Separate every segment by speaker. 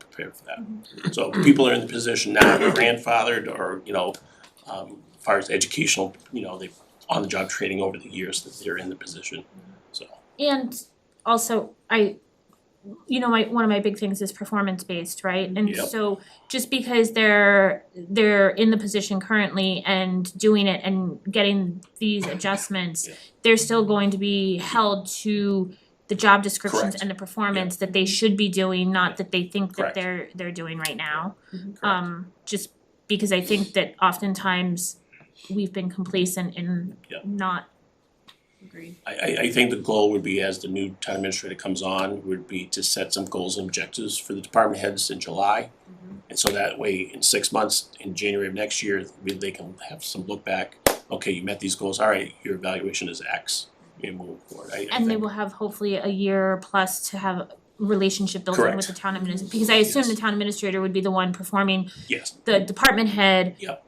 Speaker 1: prepared for
Speaker 2: Mm-hmm.
Speaker 1: that. So people are in the position now, they're grandfathered or, you know, um, as far as educational, you know, they've on-the-job training over the years that they're in the position, so.
Speaker 2: And also, I, you know, my, one of my big things is performance based, right? And
Speaker 1: Yep.
Speaker 2: so just because they're, they're in the position currently and doing it and getting these adjustments,
Speaker 1: Yeah.
Speaker 2: they're still going to be held to the job descriptions
Speaker 1: Correct.
Speaker 2: and the performance that they should be doing, not that they think that
Speaker 1: Correct. Mm-hmm.
Speaker 2: they're, they're doing right now.
Speaker 1: correct.
Speaker 2: Um, just because I think that oftentimes we've been complacent in
Speaker 1: Yep.
Speaker 2: not
Speaker 1: I I I think the goal would be as the new town administrator comes on, would be to set some goals and objectives for the department heads in July.
Speaker 2: Mm-hmm.
Speaker 1: And so that way, in six months, in January of next year, we- they can have some look back, okay, you met these goals, all right, your evaluation is X, and move forward, I I
Speaker 2: And they
Speaker 1: think-
Speaker 2: will have hopefully a year plus to have relationship building with
Speaker 1: Correct.
Speaker 2: the town administrator, because I assume the
Speaker 1: Yes.
Speaker 2: town administrator would be the one performing
Speaker 1: Yes,
Speaker 2: the department head
Speaker 1: Yep.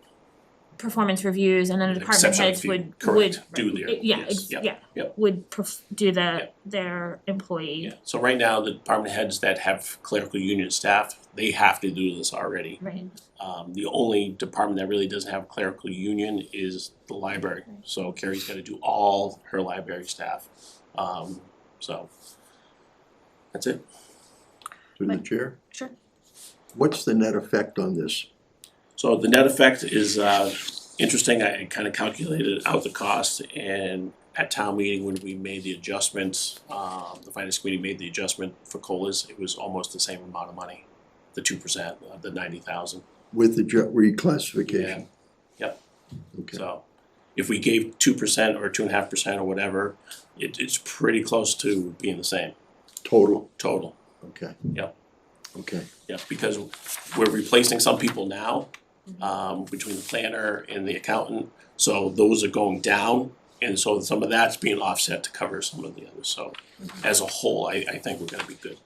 Speaker 2: performance reviews and then the
Speaker 1: With
Speaker 2: department
Speaker 1: exception
Speaker 2: heads
Speaker 1: if you-
Speaker 2: would would
Speaker 1: correct, do their,
Speaker 2: eh, yeah,
Speaker 1: yes,
Speaker 2: ex-
Speaker 1: yep,
Speaker 2: yeah,
Speaker 1: yep.
Speaker 2: would perf- do the
Speaker 1: Yep.
Speaker 2: their
Speaker 1: yeah.
Speaker 2: employee,
Speaker 1: So right now, the department heads that have clerical union staff, they have to do this already.
Speaker 2: right?
Speaker 1: Um the only department that really doesn't have clerical union is the library, so Carrie's gotta do all her library staff. Um so that's it.
Speaker 3: Through the
Speaker 2: Right.
Speaker 3: chair,
Speaker 2: Sure.
Speaker 3: what's the net effect on this?
Speaker 1: So the net effect is uh interesting, I kind of calculated out the cost and at town meeting when we made the adjustments, um the finance committee made the adjustment for colas, it was almost the same amount of money, the two percent, uh, the ninety thousand.
Speaker 3: With the ju- reclassification?
Speaker 1: Yep.
Speaker 3: Okay,
Speaker 1: So if we gave two percent or two and a half percent or whatever, it it's pretty close to being the same
Speaker 3: total,
Speaker 1: total.
Speaker 3: okay.
Speaker 1: Yep.
Speaker 3: Okay,
Speaker 1: Yeah, because we're replacing some people now, um, between the planner and the accountant. So those are going down and so some of that's being offset to cover some of the others. So
Speaker 4: Mm-hmm.
Speaker 1: as a whole, I I think we're gonna be good.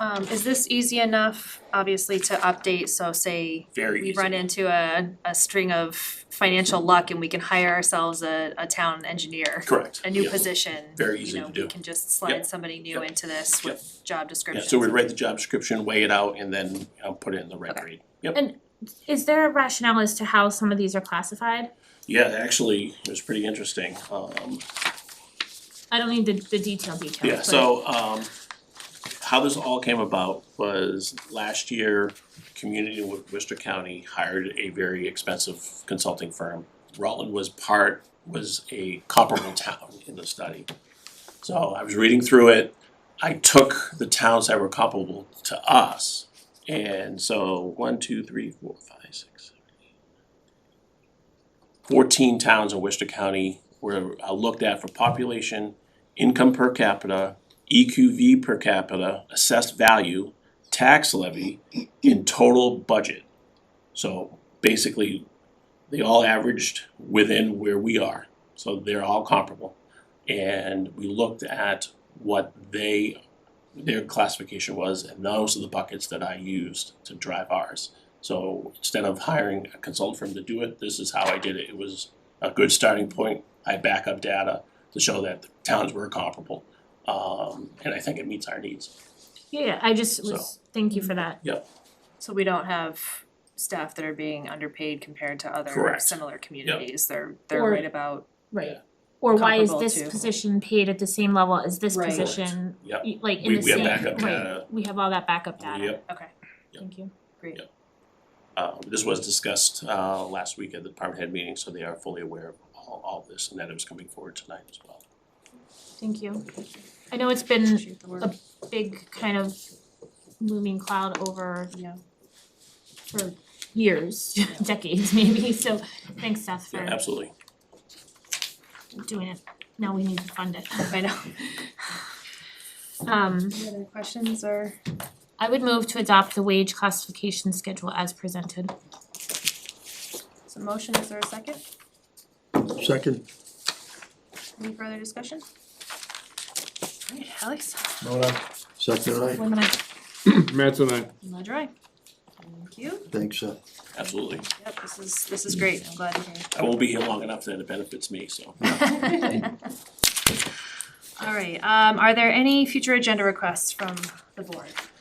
Speaker 4: Um, is this easy enough, obviously, to update, so say
Speaker 1: Very easy.
Speaker 4: we run into a, a string of financial luck and we can hire ourselves a, a town engineer,
Speaker 1: Correct.
Speaker 4: a new
Speaker 1: yeah.
Speaker 4: position,
Speaker 1: Very
Speaker 4: you
Speaker 1: easy
Speaker 4: know,
Speaker 1: to
Speaker 4: we
Speaker 1: do.
Speaker 4: can just
Speaker 1: Yep.
Speaker 4: slide somebody new
Speaker 1: Yep.
Speaker 4: into this with job
Speaker 1: Yeah,
Speaker 4: descriptions.
Speaker 1: so we write the job description, weigh it out and then, you know, put it in the red
Speaker 4: Okay.
Speaker 1: grade. Yep.
Speaker 2: Is there a rationale as to how some of these are classified?
Speaker 1: Yeah, actually, it was pretty interesting. Um,
Speaker 2: I don't need the the detail details,
Speaker 1: yeah,
Speaker 2: but-
Speaker 1: so, um, how this all came about was last year, community with Worcester County hired a very expensive consulting firm. Rutland was part, was a comparable town in the study. So I was reading through it, I took the towns that were comparable to us. And so one, two, three, four, five, six, seven, eight. Fourteen towns in Worcester County were uh, looked at for population, income per capita, EQV per capita, assessed value, tax levy, and total budget. So basically, they all averaged within where we are, so they're all comparable. And we looked at what they, their classification was, and those are the buckets that I used to drive ours. So instead of hiring a consultant firm to do it, this is how I did it. It was a good starting point. I back up data to show that the towns were comparable. Um, and I think it meets our needs.
Speaker 2: Yeah, yeah, I just was, thank you for that,
Speaker 4: So we don't have staff that are being underpaid compared to other
Speaker 1: Correct.
Speaker 4: similar communities, they're, they're
Speaker 2: Or-
Speaker 4: right about,
Speaker 2: right?
Speaker 1: Yeah.
Speaker 2: Or why is
Speaker 4: Comparable
Speaker 2: this
Speaker 4: to-
Speaker 2: position paid at the same level as this
Speaker 4: Right. Correct.
Speaker 2: position?
Speaker 1: Yep.
Speaker 2: y- Like in
Speaker 1: We-
Speaker 2: the
Speaker 1: we have
Speaker 2: same,
Speaker 1: backup
Speaker 2: right,
Speaker 1: data.
Speaker 2: we have all that backup data.
Speaker 1: Yep.
Speaker 4: okay,
Speaker 1: Yep.
Speaker 2: Thank you.
Speaker 4: great.
Speaker 1: Yeah. Uh, this was discussed, uh, last week at the department head meeting, so they are fully aware of all, all this and that it was coming forward tonight as well.
Speaker 2: Thank you. I know it's been
Speaker 4: Appreciate the work.
Speaker 2: a big kind of looming cloud over
Speaker 4: Yeah.
Speaker 2: for years, decades maybe, so thanks Seth
Speaker 1: Yeah,
Speaker 2: for
Speaker 1: absolutely.
Speaker 2: doing it. Now we need to fund it.
Speaker 4: I know.
Speaker 2: Um,
Speaker 4: Any other questions or?
Speaker 2: I would move to adopt the wage classification schedule as presented.
Speaker 4: So motion, is there a second?
Speaker 3: second,
Speaker 4: Any further discussion? Alright, Alex,
Speaker 5: Vote aye.
Speaker 3: second I,
Speaker 2: Women, I
Speaker 5: Matt's and I.
Speaker 4: ledger aye. Thank you.
Speaker 3: thanks, uh,
Speaker 1: Absolutely.
Speaker 4: Yep, this is, this is great, I'm glad to hear.
Speaker 1: I won't be here long enough that it benefits me, so.
Speaker 4: Alright, um, are there any future agenda requests from the board.